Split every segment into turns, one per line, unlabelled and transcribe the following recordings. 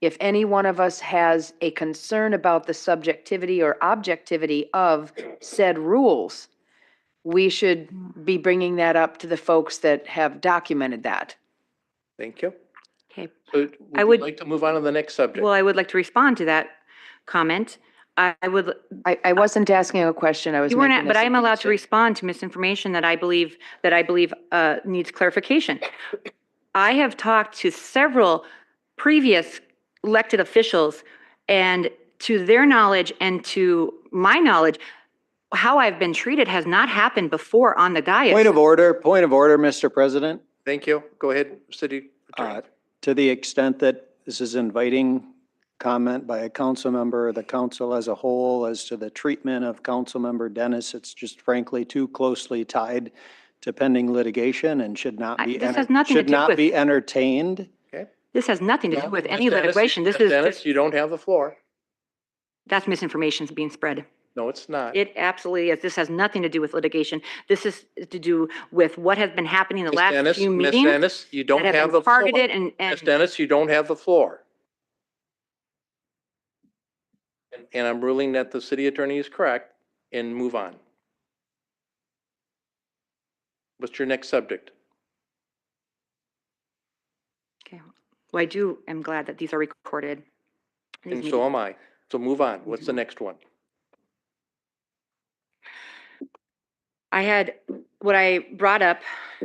if any one of us has a concern about the subjectivity or objectivity of said rules, we should be bringing that up to the folks that have documented that.
Thank you.
Okay.
So
I
would
would-
you like to move on to the next subject?
Well, I would like to respond to that comment. I I would,
I, I wasn't asking a question, I was
you weren't,
making
at- but
a
I am allowed to
suggestion.
respond to misinformation that I believe, that I believe uh, needs clarification. I have talked to several previous elected officials, and to their knowledge and to my knowledge, how I've been treated has not happened before on the dais.
Point of order, point of order, Mr. President.
Thank you. Go ahead, city
Uh,
attorney.
To the extent that this is inviting comment by a council member, or the council as a whole, as to the treatment of council member Dennis, it's just frankly too closely tied to pending litigation and should not
I-
be,
this
enter-
has nothing to
should
do
not
with-
be entertained.
This has nothing to do
No,
with
Ms.
any
Dennis,
litigation. This
Ms.
is,
Dennis,
just
you don't have the floor.
that's misinformation being spread.
No, it's not.
It absolutely is. This has nothing to do with litigation. This is to do with what has been happening the
Ms.
last
Dennis,
few
Ms.
meetings
Dennis, you don't have
that have
the
been
floor.
targeted and,
Ms.
and
Dennis, you don't have the floor. And- And I'm ruling that the city attorney is correct and move on. What's your next subject?
well, I do, am glad that these are recorded. These
And
meetings.
so am I. So move on. What's the next one?
I had, what I brought up,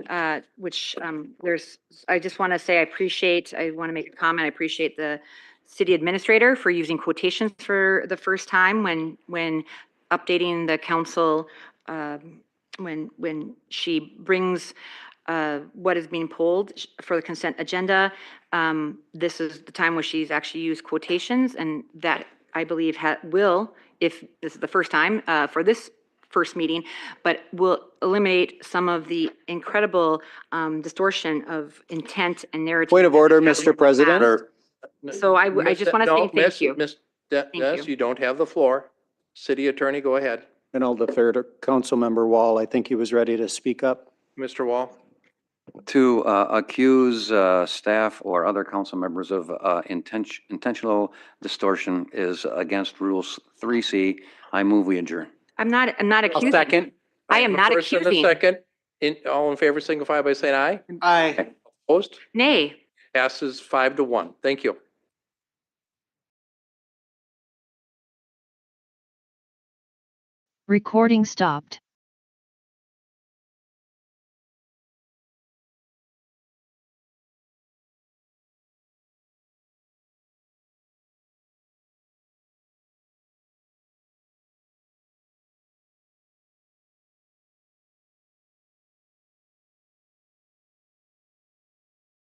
uh, which um, there's, I just want to say I appreciate, I want to make a comment, I appreciate the city administrator for using quotations for the first time when, when updating the council, um, when, when she brings uh, what is being pulled sh- for the consent agenda. Um, This is the time where she's actually used quotations, and that, I believe, ha- will, if this is the first time uh, for this first meeting, but will eliminate some of the incredible um, distortion of intent and narrative.
Point of
that
order,
we have in the
Mr. President.
past. So I w- I
Miss-
just wanna
no,
say thank
Miss-
you.
Miss De-
you.
Dennis, you don't have the floor. City attorney, go ahead.
And I'll defer to Councilmember Wall. I think he was ready to speak up.
Mr. Wall?
to uh, accuse uh, staff or other council members of uh, inten- intentional distortion is against Rules 3C. I move we adjourn.
I'm not, I'm not accusing. I am
have a
not
first and a
accusing.
Second, in, all in favor, signify by saying aye.
Aye.
Opposed?
Nay.
Passes five to one. Thank you.
Recording stopped.